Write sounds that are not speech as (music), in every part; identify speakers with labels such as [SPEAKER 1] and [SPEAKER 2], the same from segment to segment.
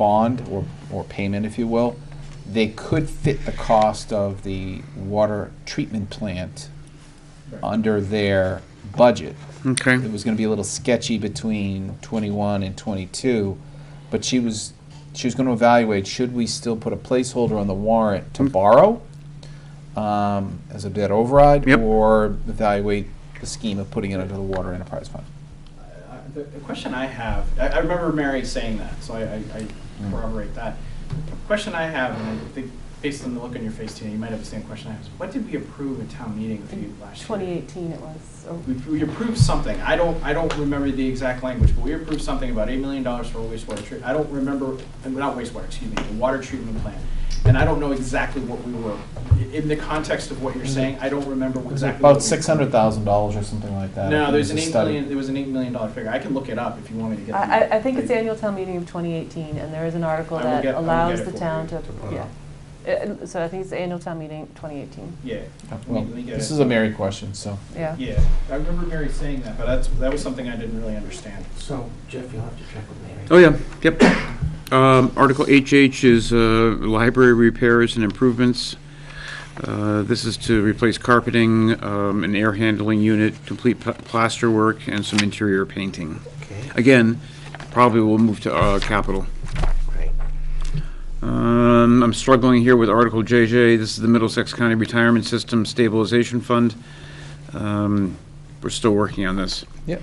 [SPEAKER 1] bond or, or payment, if you will, they could fit the cost of the water treatment plant under their budget.
[SPEAKER 2] Okay.
[SPEAKER 1] It was gonna be a little sketchy between twenty-one and twenty-two, but she was, she was gonna evaluate, should we still put a placeholder on the warrant
[SPEAKER 2] Mm.
[SPEAKER 1] to borrow? um, as a debt override?
[SPEAKER 2] Yep.
[SPEAKER 1] Or evaluate the scheme of putting it under the water enterprise fund?
[SPEAKER 3] Uh, The the question I have, I I remember Mary saying that, so I- I I
[SPEAKER 1] Mm.
[SPEAKER 3] corroborate that. The Question I have, and I think based on the look on your face, Tina, you might have the same question I have, is what did we approve at town meeting for you last year?
[SPEAKER 4] 2018 it was. or-
[SPEAKER 3] We- We approved something, I don't, I don't remember the exact language, but we approved something about $8 million for wastewater treatment. I don't remember, and not wastewater, excuse me, the water treatment plant. And I don't know exactly what we were, i- in the context of what you're saying, I don't remember exactly. what
[SPEAKER 1] Mm-hmm. About
[SPEAKER 3] we-
[SPEAKER 1] six hundred thousand dollars or something like that.
[SPEAKER 3] No, there's
[SPEAKER 1] there's
[SPEAKER 3] an eight million, there was an $8 million dollar figure, I can look it up if you want me to get.
[SPEAKER 4] I,
[SPEAKER 3] the-
[SPEAKER 4] I- I think it's the annual town meeting of 2018, and there is an article
[SPEAKER 3] I will
[SPEAKER 4] that
[SPEAKER 3] get- I will get
[SPEAKER 4] allows
[SPEAKER 3] it
[SPEAKER 4] the
[SPEAKER 3] for
[SPEAKER 4] town
[SPEAKER 3] you
[SPEAKER 4] to, yeah. Uh, So I think it's the annual town meeting 2018,
[SPEAKER 3] Yeah. Let me-
[SPEAKER 1] Uh, Well,
[SPEAKER 3] let me get
[SPEAKER 1] this
[SPEAKER 3] it.
[SPEAKER 1] is a Mary question, so.
[SPEAKER 4] yeah.
[SPEAKER 3] Yeah, I remember Mary saying that, but that's, that was something I didn't really understand.
[SPEAKER 5] So Jeff, you'll have to check with Mary.
[SPEAKER 2] Oh, yeah, yep. Um, Article HH is uh, library repairs and improvements. Uh, This is to replace carpeting, um, an air handling unit, complete pla- plaster work, and some interior painting.
[SPEAKER 5] Okay,
[SPEAKER 2] Again, probably will move to uh, capital.
[SPEAKER 5] great.
[SPEAKER 2] Um, I'm struggling here with Article JJ. This is the Middlesex County Retirement System Stabilization Fund. Um, We're still working on this.
[SPEAKER 1] Yep.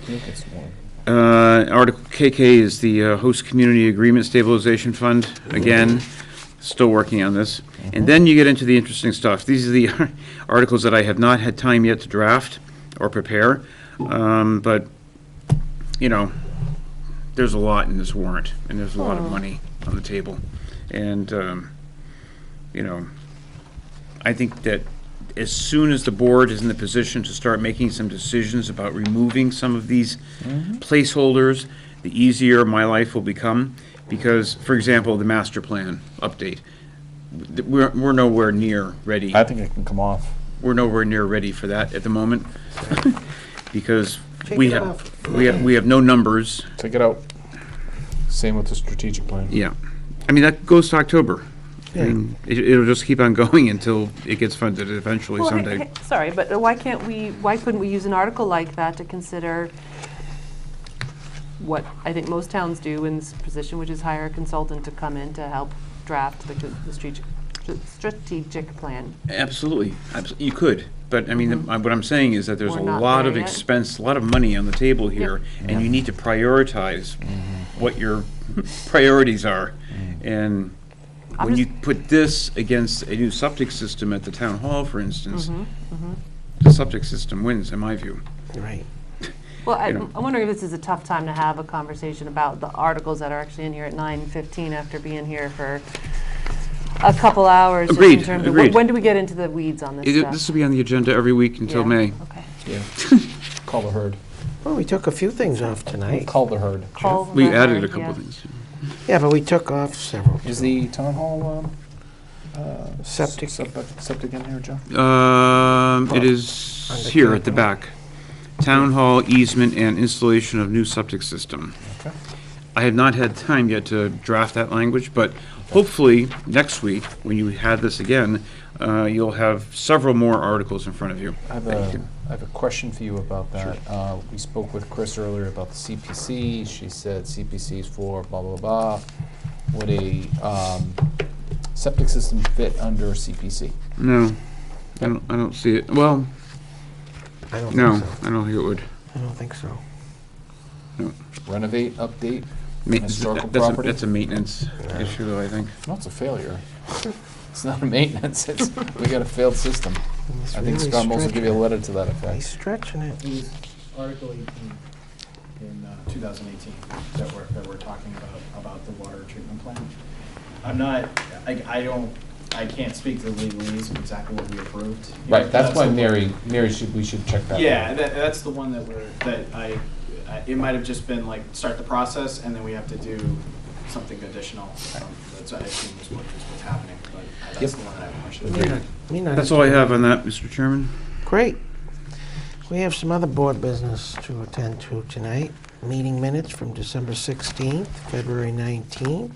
[SPEAKER 2] Uh, Article KK is the uh, Host Community Agreement Stabilization Fund. Again, still working on this. And then you get into the interesting stuff. These are the (laughs) articles that I have not had time yet to draft or prepare. Um, But, you know, there's a lot in this warrant, and there's a lot of money on the table. And, um, you know, I think that as soon as the board is in the position to start making some decisions about removing some of these placeholders, the easier my life will become. Because, for example, the master plan update, th- we're, we're nowhere near ready.
[SPEAKER 1] I think it can come off.
[SPEAKER 2] We're nowhere near ready for that at the moment. (laughs) Because
[SPEAKER 5] Take
[SPEAKER 2] we
[SPEAKER 5] it
[SPEAKER 2] have,
[SPEAKER 5] off.
[SPEAKER 2] we have, we have no numbers.
[SPEAKER 1] Take it out. Same with the strategic plan.
[SPEAKER 2] Yeah. I mean, that goes to October. I mean, it, it'll just keep on (laughs) going until it gets funded eventually
[SPEAKER 4] Well,
[SPEAKER 2] someday.
[SPEAKER 4] hey- hey, Sorry, but why can't we, why couldn't we use an article like that to consider what I think most towns do in this position, which is hire a consultant to come in to help draft the co- the strategic, strategic plan?
[SPEAKER 2] Absolutely, Abs- you could, but I mean, the- what I'm saying is that there's a
[SPEAKER 4] Mm-hmm. We're not
[SPEAKER 2] lot of
[SPEAKER 4] there yet.
[SPEAKER 2] expense, a lot of money on the table here, and you need to prioritize what your (laughs) priorities are. And
[SPEAKER 4] I'm
[SPEAKER 2] when you
[SPEAKER 4] just-
[SPEAKER 2] put this against a new septic system at the town hall, for instance,
[SPEAKER 4] Mm-hmm,
[SPEAKER 2] the septic system wins, in my view.
[SPEAKER 5] Right.
[SPEAKER 4] Well, I-
[SPEAKER 2] know.
[SPEAKER 4] I'm wondering if this is a tough time to have a conversation about the articles that are actually in here at 9:15 after being here for a couple hours. just in
[SPEAKER 2] Agreed,
[SPEAKER 4] terms of wh-
[SPEAKER 2] agreed.
[SPEAKER 4] When do we get into the weeds on this
[SPEAKER 2] It-
[SPEAKER 4] stuff?
[SPEAKER 2] This will be on the agenda every week until
[SPEAKER 4] Yeah,
[SPEAKER 2] May.
[SPEAKER 4] Okay.
[SPEAKER 1] Yeah. Call the herd.
[SPEAKER 5] Well, we took a few things off tonight.
[SPEAKER 1] Call the herd.
[SPEAKER 4] Call
[SPEAKER 2] We
[SPEAKER 4] that
[SPEAKER 2] added
[SPEAKER 4] hard,
[SPEAKER 2] a couple
[SPEAKER 4] yeah.
[SPEAKER 2] of things.
[SPEAKER 5] Yeah, but we took off several.
[SPEAKER 1] Is the town hall, um, uh,
[SPEAKER 5] Septic.
[SPEAKER 1] Septic, septic in there, Joe?
[SPEAKER 2] Um, It is
[SPEAKER 5] Under
[SPEAKER 2] here at the
[SPEAKER 5] capital.
[SPEAKER 2] back. Town hall easement and installation of new septic system.
[SPEAKER 1] Okay.
[SPEAKER 2] I have not had time yet to draft that language, but hopefully, next week, when you have this again, uh, you'll have several more articles in front of you.
[SPEAKER 1] I have
[SPEAKER 2] that you
[SPEAKER 1] a,
[SPEAKER 2] can-
[SPEAKER 1] I have a question for you about that. Uh, we spoke with Chris earlier about the CPC. She said CPC is for blah, blah, blah. Would a, um, septic system fit under CPC?
[SPEAKER 2] No, I don't, I don't see it. Well,
[SPEAKER 5] I don't
[SPEAKER 2] no,
[SPEAKER 5] think so.
[SPEAKER 2] I don't think it would.
[SPEAKER 5] I don't think so.
[SPEAKER 1] Renovate, update?
[SPEAKER 2] Ma-
[SPEAKER 1] Historical
[SPEAKER 2] that's a-
[SPEAKER 1] property?
[SPEAKER 2] That's a maintenance issue, though, I think.
[SPEAKER 1] No, it's a failure. (laughs) It's not a maintenance, it's, we got a failed system.
[SPEAKER 5] He's
[SPEAKER 1] I think
[SPEAKER 5] really
[SPEAKER 1] Scott Moles will give you a
[SPEAKER 5] stretching
[SPEAKER 1] letter to that
[SPEAKER 5] it. He's
[SPEAKER 1] effect.
[SPEAKER 5] stretching it.
[SPEAKER 3] It was Article 18 in uh, 2018 that we're, that we're talking about, about the water treatment plant. I'm not, I, I don't, I can't speak to the legalese of exactly what we approved.
[SPEAKER 1] Right, that's why
[SPEAKER 3] the-
[SPEAKER 1] Mary, Mary should, we should check that.
[SPEAKER 3] Yeah, that, that's the one that we're, that I, I- it might have just been like, start the process, and then we have to do something additional. Um, That's, I assume is what, is what's happening, but that's the one that I have questions.
[SPEAKER 5] Yeah. Me neither.
[SPEAKER 2] That's all I have on that, Mr. Chairman.
[SPEAKER 5] Great. We have some other board business to attend to tonight. Meeting minutes from December 16th, February 19th,